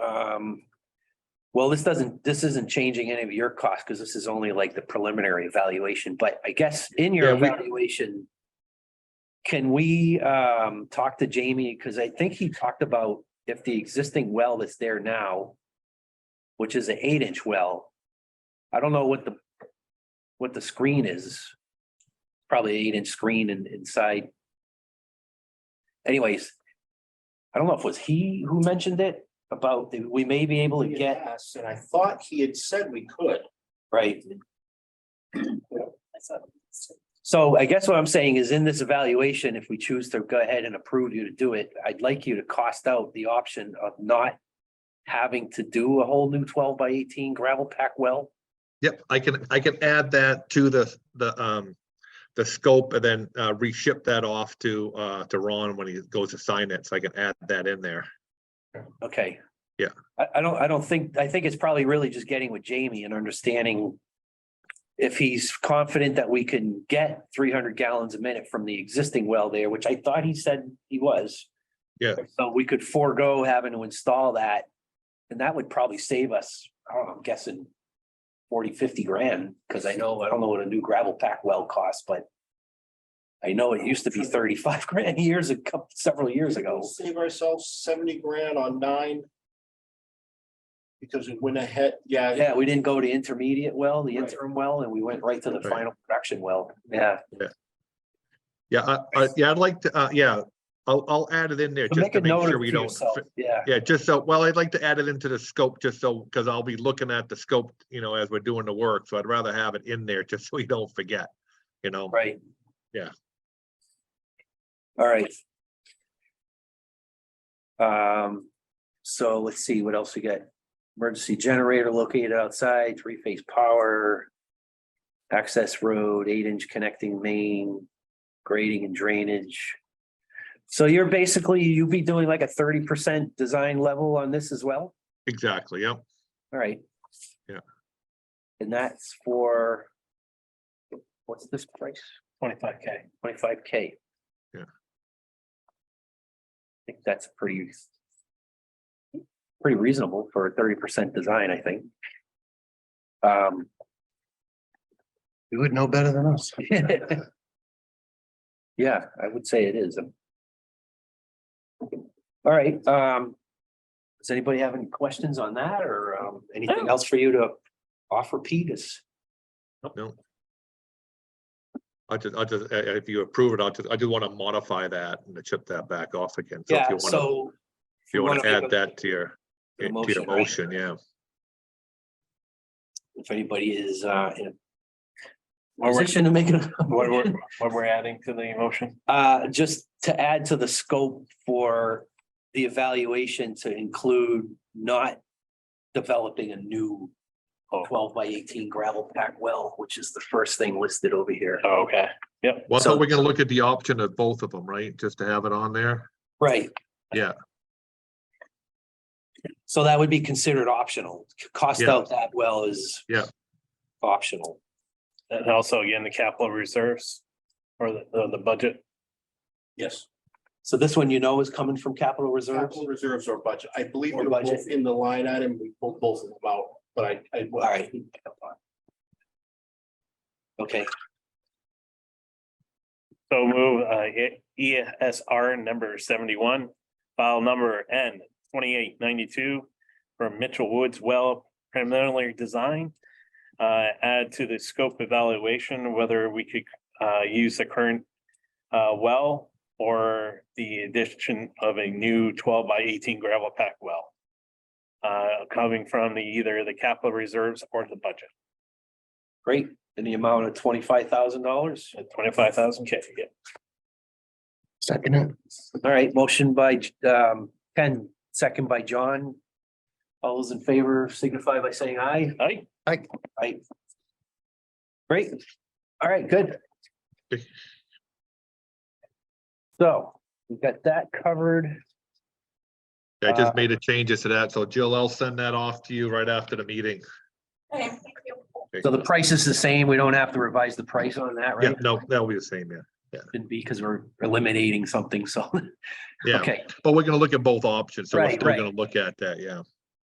Um, well, this doesn't, this isn't changing any of your costs because this is only like the preliminary evaluation, but I guess in your Yeah, we- evaluation. Can we um talk to Jamie? Because I think he talked about if the existing well that's there now. Which is an eight inch well. I don't know what the. What the screen is. Probably eight inch screen and inside. Anyways. I don't know if it was he who mentioned it about the- we may be able to He had get, asked, And I thought he had said we could. right? So I guess what I'm saying is in this evaluation, if we choose to go ahead and approve you to do it, I'd like you to cost out the option of not. Having to do a whole new twelve by eighteen gravel pack well. Yep, I can, I can add that to the, the, um, the scope and then, uh, reship that off to, uh, to Ron when he goes to sign it. So I can add that in there. Okay. Yeah. I, I don't, I don't think, I think it's probably really just getting with Jamie and understanding. If he's confident that we can get three hundred gallons a minute from the existing well there, which I thought he said he was. Yeah. So we could forego having to install that. And that would probably save us, I don't know, I'm guessing. 40, 50 grand, because I know, I don't know what a new gravel pack well costs, but. I know it used to be thirty-five grand years, a couple, several years ago. We'll Save ourselves seventy grand on nine. Because we went ahead, yeah, Yeah, we didn't go to intermediate well, the Right. interim well, and we went right to the Right. final production well. Yeah, Yeah, I, I, yeah, I'd like to, uh, yeah, I'll, I'll add it in there So just make to a make note sure of it we to don't. yourself. fi- Yeah, Yeah, just so, well, I'd like to add it into the scope just so, because I'll be looking at the scope, you know, as we're doing the work. So I'd rather have it in there just so we don't forget, you know? right. Yeah. All right. Um, so let's see, what else we got? Emergency generator located outside, three-phase power. Access road, eight-inch connecting main, grading and drainage. So you're basically, you'd be doing like a thirty percent design level on this as well? Exactly, yeah. All right. Yeah. And that's for. What's this price? Twenty-five K. Twenty-five K. Yeah. I think that's pretty. Pretty reasonable for a thirty percent design, I think. Um. You would know better than us. Yeah, I would say it is. All right, um. Does anybody have any questions on that or um anything else for you to offer Pete is? No. I just, I just, uh, uh, if you approve it, I just, I do want to modify that and to chip that back off again. So if you want to, if you want to wanna make add a- that to your, to the to your motion, right? motion, yeah. If anybody is uh in a position to make it. What we're, what we're adding to the motion? Uh, just to add to the scope for the evaluation to include not developing a new Oh. twelve by eighteen gravel pack well, which is the first thing listed over here. Oh, Okay, Well, I So- thought we're gonna look at the option of both of them, right? Just to have it on there? Right. Yeah. So that would be considered optional. Cost Yeah. out that well is Yeah. optional. and also again, the capital reserves or the, the, the budget. yes. So this one you know is coming from capital reserves? Capital reserves or budget. I believe Or they're budget. both in the line item. We pulled both of them out, but I, I. All right. Okay, So move, uh, E- ESR number seventy-one, file number N twenty-eight ninety-two for Mitchell Woods well preliminary design. Uh, add to the scope evaluation whether we could, uh, use the current, uh, well or the addition of a new twelve by eighteen gravel pack well. Uh, coming from the, either the capital reserves or the budget. great. In the amount of twenty-five thousand dollars? Twenty-five thousand K, yeah. Second it. All right, motion by um Ken, second by John. All those in favor signify by saying aye. Aye. Aye. Great. All right, good. So we got that covered. I Uh, just made a changes to that. So Jill, I'll send that off to you right after the meeting. Okay, thank you. So the price is the same. We don't have to revise the price on that, Yeah, right? no, that'll be the same, yeah. Shouldn't be because we're eliminating something, so. Yeah, Okay, but we're gonna look at both options. So we're Right, still right. gonna look at that, yeah.